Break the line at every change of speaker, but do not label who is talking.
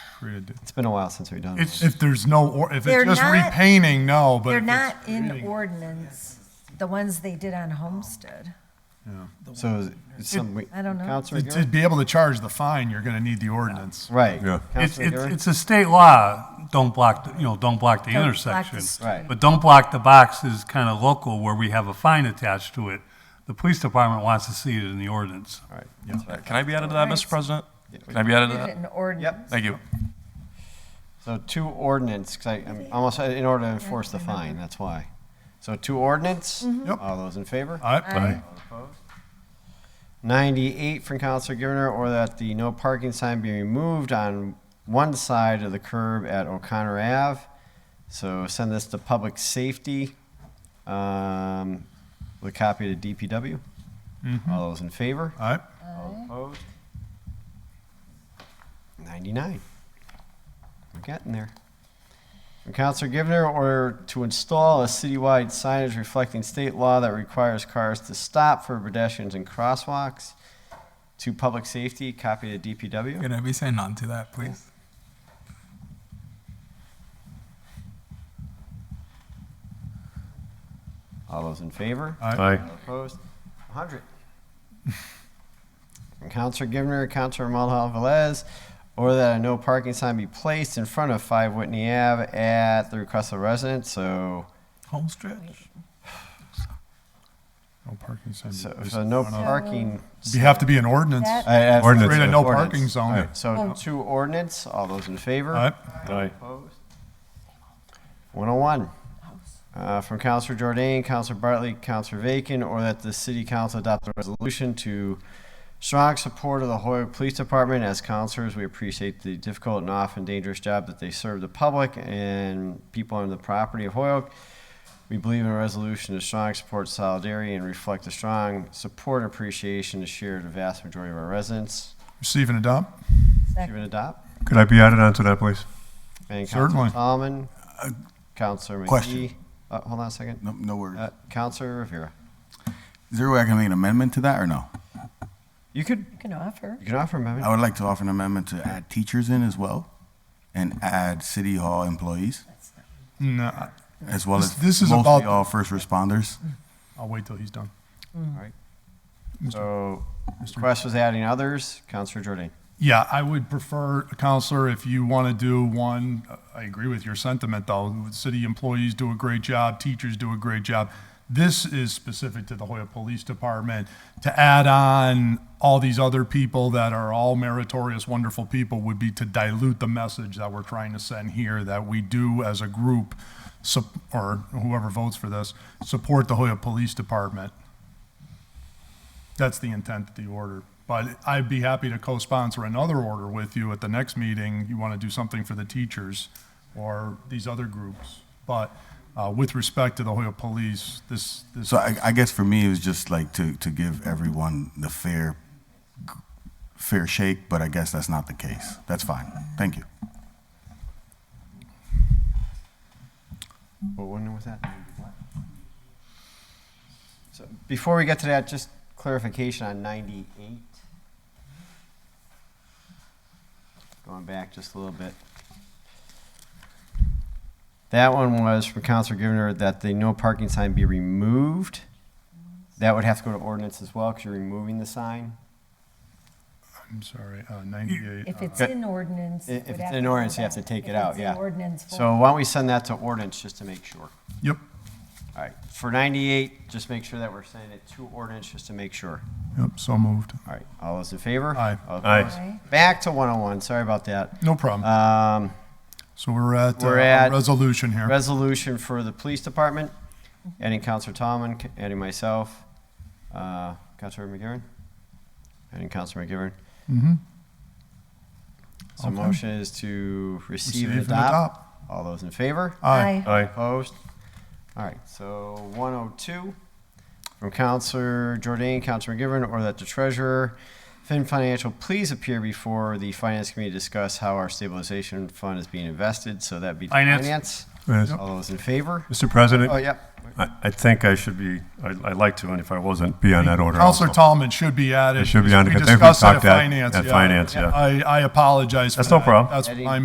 created.
It's been a while since we've done
It's,
it.
if there's no, or if
They're
it's just
not-
repainting, no, but.
They're
if
not
it's
in
creating-
ordinance, the ones they did on Homestead.
So is- is some. we-
I don't know.
Counselor
To to
Garrett?
be able to charge the fine, you're gonna need the ordinance.
Right.
Yeah.
It's,
Counselor
it's
Garrett?
it's a state law, don't block, the- you know, don't block the
Don't block the
intersection.
street.
Right.
But don't block the box is kind of local where we have a fine attached to it. The police department wants to see it in the ordinance.
All right. That's right.
Can I be added to that, Mr. President? Can I be
Uh,
added to
Did it
that?
in ordinance.
Thank you.
So two ordinance, because I'm almost, in order to enforce the fine, that's why. So two ordinance?
Mm-hmm.
Yep.
All those in favor?
Aye.
98 from Counselor Givner, or that the no parking sign be removed on one side of the curb at O'Connor Ave. So send this to Public Safety, um, with a copy to DPW. All those in favor?
Aye.
All opposed? 99. We're getting there. From Counselor Givner, order to install a citywide signage reflecting state law that requires cars to stop for pedestrians and crosswalks. To public safety, copy to DPW.
Could I be saying none to that, please?
All those in favor?
Aye.
All opposed? 100. From Counselor Givner, Counselor Mulhall Velez, order that a no parking sign be placed in front of 5 Whitney Ave at the request of residents. So
Home stretch?
No parking sign.
So, so no parking.
You have to be an ordinance.
That-
I- I-
Ordinance.
Create a no
Ordinance.
parking
All
zone.
right, So two ordinance, all those in favor?
Aye.
Aye.
Opposed? 101, uh, from Counselor Jordan, Counselor Bartley, Counselor Vacan, or that the city council adopt a resolution to strong support of the Hoyok Police Department. As counselors, we appreciate the difficult and often dangerous job that they serve the public and people on the property of Hoyok. We believe in a resolution to strong support solidarity and reflect the strong support and appreciation to share to the vast majority of our residents.
Receive and adopt.
Give it a dot.
Could I be added onto that, please?
And Counselor
Certainly.
Solomon, Counselor McGee.
Uh, question.
Uh, hold on a second.
No, no worries.
Uh, Counselor Rivera.
Is there a way I can make an amendment to that or no?
You could,
You can offer.
you can offer amendment.
I would like to offer an amendment to add teachers in as well and add city hall employees
No,
as well
This-
as
this is
mostly
about-
all first responders.
I'll wait till he's done.
So request was adding others. Counselor Jordan.
Yeah, I would prefer, Counselor, if you want to do one, I agree with your sentiment, though. City employees do a great job, teachers do a great job. This is specific to the Hoya Police Department. To add on all these other people that are all meritorious, wonderful people would be to dilute the message that we're trying to send here, that we do as a group, sup- or whoever votes for this, support the Hoya Police Department. That's the intent of the order. But I'd be happy to co-sponsor another order with you at the next meeting. You want to do something for the teachers or these other groups. But uh, with respect to the Hoyok Police, this, this,
So I, I guess for me, it was just like to, to give everyone the fair, fair shake, but I guess that's not the case. That's fine. Thank you.
What one was that? So before we get to that, just clarification on 98. Going back just a little bit. That one was from Counselor Givner that the no parking sign be removed. That would have to go to ordinance as well because you're removing the sign.
I'm sorry, uh, 98.
If
uh,
it's in ordinance.
I-
it
if
would
it's
have
in
to go
ordinance, you have
back.
to take
If
it out,
it's in
yeah.
ordinance
So
form.
why don't we send that to ordinance just to make sure?
Yep,
All right, for 98, just make sure that we're sending it to ordinance just to make sure.
yep, so moved.
All right, all those in favor?
Aye.
All
Aye.
opposed?
Aye.
Back to 101, sorry about that.
No problem.
Um,
So we're at uh,
we're at-
a resolution here.
Resolution for the police department, adding Counselor Tomlin, c- adding myself, uh, Counselor McGivern, adding Counselor McGivern. Mm-hmm.
Mhm.
So motion is to receive and
Receive and
adopt. All those in favor?
Aye.
Aye.
Opposed? All right, so 102 from Counselor Jordan, Counselor McGivern, or that the treasurer, Finn Financial, please appear before the Finance Committee to discuss how our stabilization fund is being invested. So that'd be
Finance.
finance.
Yes.
All those in favor?
Mr. President?
Oh, yep.
I, I think I should be, I- I'd like to, and if I wasn't, be on that order also.
Counselor Tallman should be added.
It should be on,
We
because I think we
discussed that at
talked at-
finance.
at finance, yeah.
I, I apologize for
That's no
that.
problem.
That's my